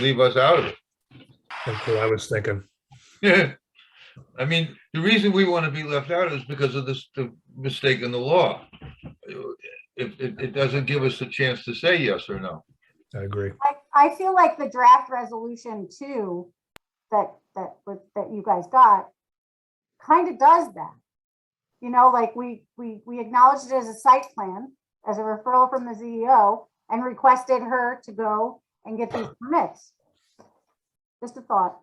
leave us out of it. That's what I was thinking. Yeah. I mean, the reason we want to be left out is because of this, the mistake in the law. It, it, it doesn't give us a chance to say yes or no. I agree. I, I feel like the draft resolution too, that, that, was- that you guys got, kind of does that. You know, like we, we, we acknowledged it as a site plan, as a referral from the CEO, and requested her to go and get these permits. Just a thought,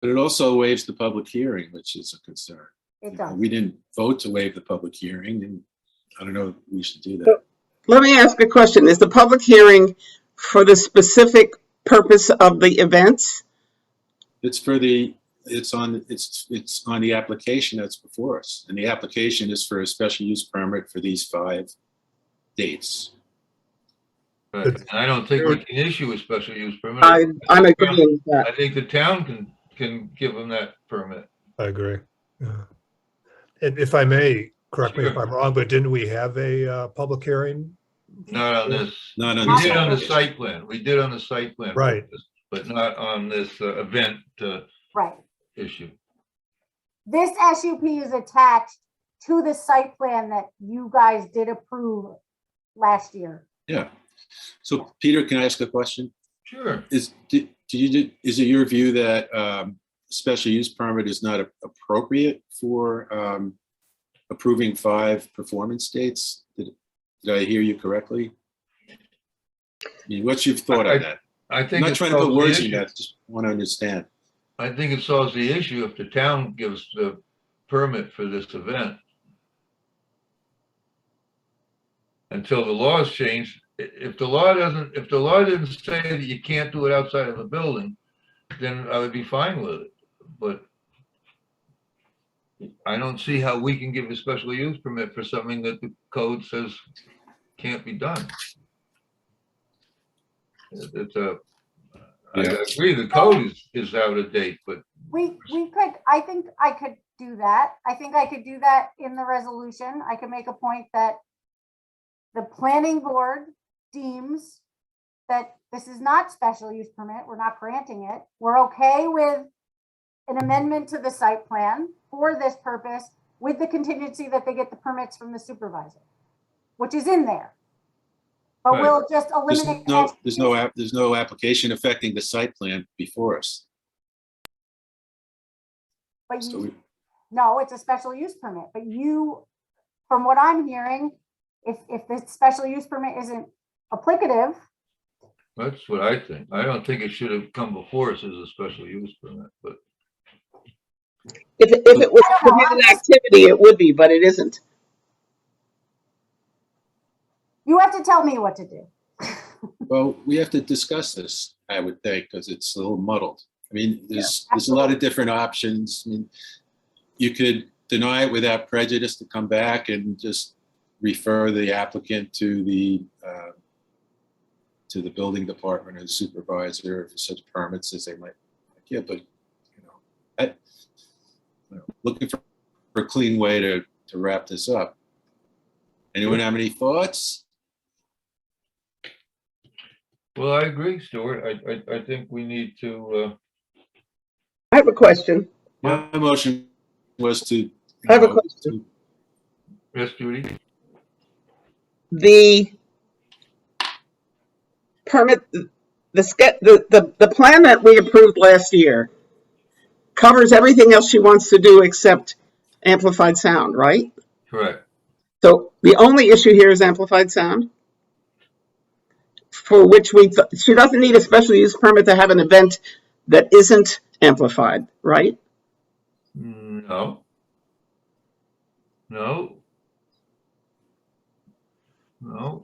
But it also waives the public hearing, which is a concern. it You know, does. We didn't vote to waive the public hearing, and I don't know if we should do that. Let me ask a question. Is the public hearing for the specific purpose of the events? It's for the, it's on, it's, it's on the application that's before us. And the application is for a special use permit for these five dates. Right. And I don't think we can issue a special use permit. I, I'm agreeing with that. I think the town can, can give them that permit. I agree. Yeah. And if I may, correct me if I'm wrong, but didn't we have a uh, public hearing? Not on this. Not on We did the on the site plan. We did on the site plan. Right. But not on this uh, event uh, Right. issue. This SUP is attached to the site plan that you guys did approve last year. Yeah. So Peter, can I ask a question? Sure. Is, do do you, is it your view that um, special use permit is not appropriate for um, approving five performance dates? Did did I hear you correctly? I mean, What's your thought on that? I I'm think. not it trying to put solves the words in issue. your mouth, just want to understand. I think it solves the issue if the town gives the permit for this event. Until the law is changed, i- if the law doesn't, if the law didn't say that you can't do it outside of a building, then I would be fine with it, but I don't see how we can give a special use permit for something that the code says can't be done. It- It's a, I Yeah. agree, the code is, is out of date, but We, we could, I think I could do that. I think I could do that in the resolution. I could make a point that the planning board deems that this is not special use permit, we're not granting it. We're okay with an amendment to the site plan for this purpose with the contingency that they get the permits from the supervisor, which is in there. But Right. we'll just There's eliminate. no, there's no, app- there's no application affecting the site plan before us. But So you we- No, it's a special use permit, but you, from what I'm hearing, if, if the special use permit isn't applicative, That's what I think. I don't think it should have come before us as a special use permit, but If, if it was I don't know, I'm prohibited activity, it would be, but it isn't. you have to tell me what to do. Well, we have to discuss this, I would think, because it's a little muddled. I mean, there's, there's a lot of different options. I mean, you could deny it without prejudice to come back and just refer the applicant to the, uh, to the building department or supervisor for such permits as they might, yeah, but, you know, I, you know, looking for for a clean way to, to wrap this up. Anyone have any thoughts? well, I agree, Stuart. I, I, I think we need to, uh, I have a question. My motion was to. you I have a know, question. uh, yes, Judy? The permit, the, ske- the, the, the plan that we approved last year covers everything else she wants to do except amplified sound, right? Correct. So the only issue here is amplified sound. For which we, th- she doesn't need a special use permit to have an event that isn't amplified, right? No. No. No.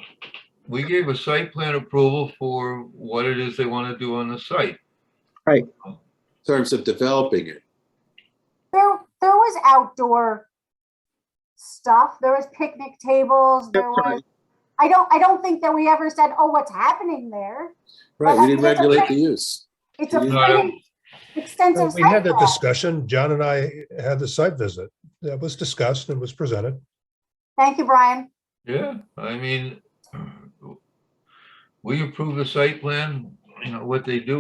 We gave a site plan approval for what it is they want to do on the site. in terms of developing it. There, there was outdoor stuff, there was picnic tables, there was, That's right. I don't, I don't think that we ever said, oh, what's happening there? Right, we didn't regulate the use. It's a No, I don't- pretty extensive We had site that plan. discussion. John and I had the site visit that was discussed and was presented. Thank you, Brian. Yeah, I mean, we approve the site plan, you know, what they do